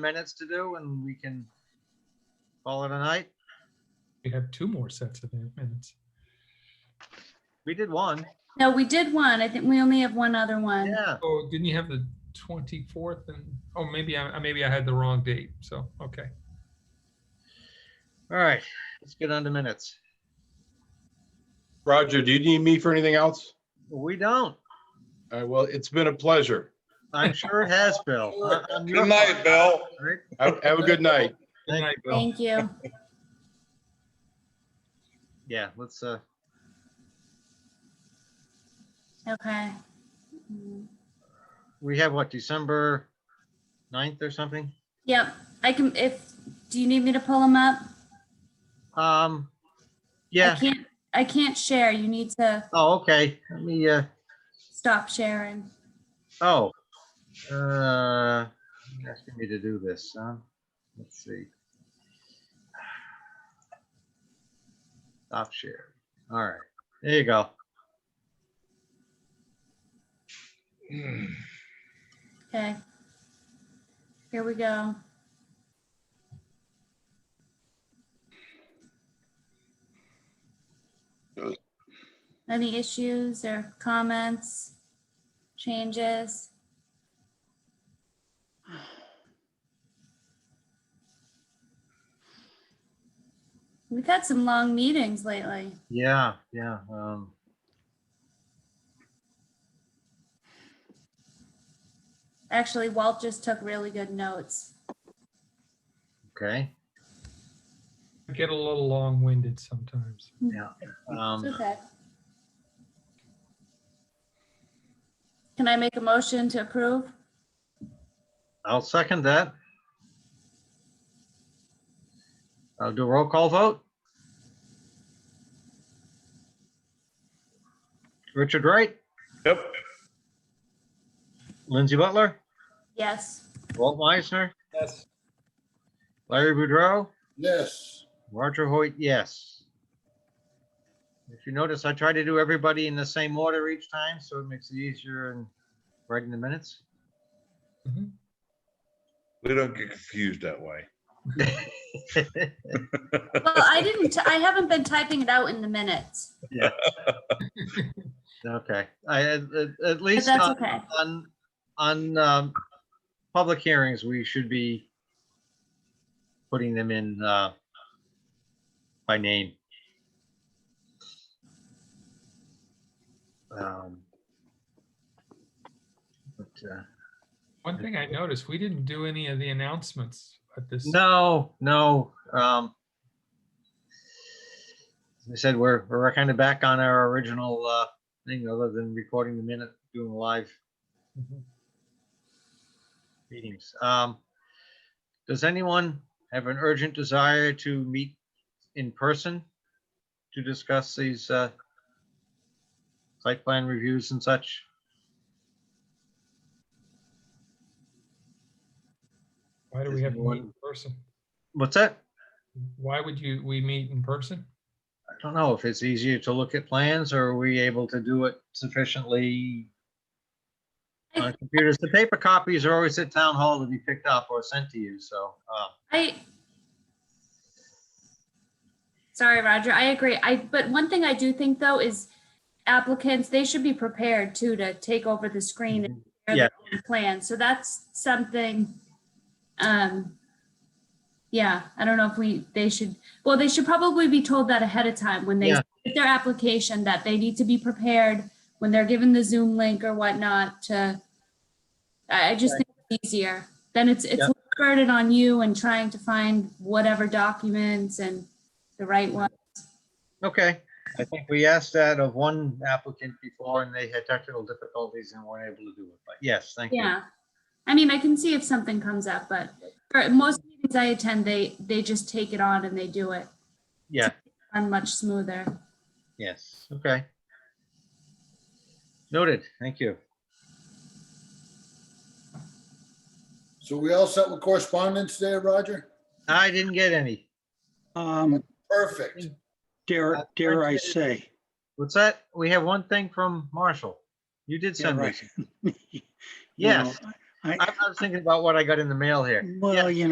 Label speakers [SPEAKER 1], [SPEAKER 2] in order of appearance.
[SPEAKER 1] minutes to do and we can call it a night.
[SPEAKER 2] We have two more sets of minutes.
[SPEAKER 1] We did one.
[SPEAKER 3] No, we did one. I think we only have one other one.
[SPEAKER 1] Yeah.
[SPEAKER 2] Oh, didn't you have the 24th and, oh, maybe I, I- maybe I had the wrong date. So, okay.
[SPEAKER 1] All right. Let's get on to minutes.
[SPEAKER 4] Roger, do you need me for anything else?
[SPEAKER 1] We don't.
[SPEAKER 4] All right, well, it's been a pleasure.
[SPEAKER 1] I'm sure it has, Bill. I- I'm your
[SPEAKER 5] Good night,
[SPEAKER 1] fault,
[SPEAKER 5] Bill.
[SPEAKER 1] right?
[SPEAKER 4] Have have a good night.
[SPEAKER 2] Good night, Bill.
[SPEAKER 3] Thank you.
[SPEAKER 1] Yeah, let's, uh,
[SPEAKER 3] Okay. Mm,
[SPEAKER 1] we have what, December 9th or something?
[SPEAKER 3] Yep, I can, if, do you need me to pull them up?
[SPEAKER 1] Um,
[SPEAKER 3] I
[SPEAKER 1] yeah.
[SPEAKER 3] can't, I can't share. You need to
[SPEAKER 1] Oh, okay. Let me, uh,
[SPEAKER 3] stop sharing.
[SPEAKER 1] oh. Uh, you're asking me to do this, huh? Let's see. Stop share. All right. There you go.
[SPEAKER 3] Okay. Here we go. Any issues or comments, changes? We've had some long meetings lately.
[SPEAKER 1] Yeah, yeah. Um,
[SPEAKER 3] Actually, Walt just took really good notes.
[SPEAKER 1] okay.
[SPEAKER 2] I Get a little long-winded sometimes.
[SPEAKER 3] It's
[SPEAKER 1] Um,
[SPEAKER 3] Okay. Can I make a motion to approve?
[SPEAKER 1] I'll second that. I'll do a roll call vote. Richard Wright,
[SPEAKER 5] Yep.
[SPEAKER 1] Lindsay Butler,
[SPEAKER 3] Yes.
[SPEAKER 1] Walt Meisner,
[SPEAKER 2] Yes.
[SPEAKER 1] Larry Boudreau,
[SPEAKER 5] Yes.
[SPEAKER 1] Roger Hoyt, yes. If you notice, I try to do everybody in the same order each time, so it makes it easier in writing the minutes.
[SPEAKER 5] We don't get confused that way.
[SPEAKER 3] Well, I didn't, I haven't been typing it out in the minutes.
[SPEAKER 1] Okay, I, at, at- at
[SPEAKER 3] But
[SPEAKER 1] least.
[SPEAKER 3] that's
[SPEAKER 1] on-
[SPEAKER 3] okay.
[SPEAKER 1] on, on, um, public hearings, we should be putting them in, uh, by name. Um, But, uh,
[SPEAKER 2] One thing I noticed, we didn't do any of the announcements at this.
[SPEAKER 1] no, no, um, as I said, we're, we're kind of back on our original, uh, thing, other than recording the minute, doing live
[SPEAKER 2] Mhm.
[SPEAKER 1] meetings. Um, Does anyone have an urgent desire to meet in person to discuss these uh, site plan reviews and such?
[SPEAKER 2] Why do we
[SPEAKER 1] There's
[SPEAKER 2] have to
[SPEAKER 1] no
[SPEAKER 2] meet in person?
[SPEAKER 1] What's that?
[SPEAKER 2] Why would you, we meet in person?
[SPEAKER 1] I don't know if it's easier to look at plans or are we able to do it sufficiently on computers? The paper copies are always at town hall to be picked up or sent to you, so. uh,
[SPEAKER 3] I. Sorry, Roger, I agree. I, but one thing I do think though is applicants, they should be prepared too to take over the screen and share their own plan. So that's something, um, yeah, I don't know if we, they should, well, they should probably be told that ahead of time when they
[SPEAKER 1] Yeah.
[SPEAKER 3] submit their application that they need to be prepared when they're given the Zoom link or whatnot to, I, I just think it's easier. Then it's, it's
[SPEAKER 1] Yeah.
[SPEAKER 3] less burden on you and trying to find whatever documents and the right one.
[SPEAKER 1] Okay, I think we asked that of one applicant before and they had technical difficulties and weren't able to do it, but yes, thank you.
[SPEAKER 3] Yeah. I mean, I can see if something comes up, but for most meetings I attend, they, they just take it on and they do it.
[SPEAKER 1] Yeah.
[SPEAKER 3] I'm much smoother.
[SPEAKER 1] Yes, okay. Noted, thank you.
[SPEAKER 6] So we all set with correspondence there, Roger?
[SPEAKER 1] I didn't get any.
[SPEAKER 7] Um,
[SPEAKER 6] Perfect.
[SPEAKER 1] Uh,
[SPEAKER 7] dare, dare I
[SPEAKER 1] Richard-
[SPEAKER 7] say,
[SPEAKER 1] What's that? We have one thing from Marshall. You did
[SPEAKER 7] yeah,
[SPEAKER 1] send me.
[SPEAKER 7] right. You know,
[SPEAKER 1] Yes,
[SPEAKER 7] I,
[SPEAKER 1] I I was thinking about what I got in the mail here.
[SPEAKER 7] well, you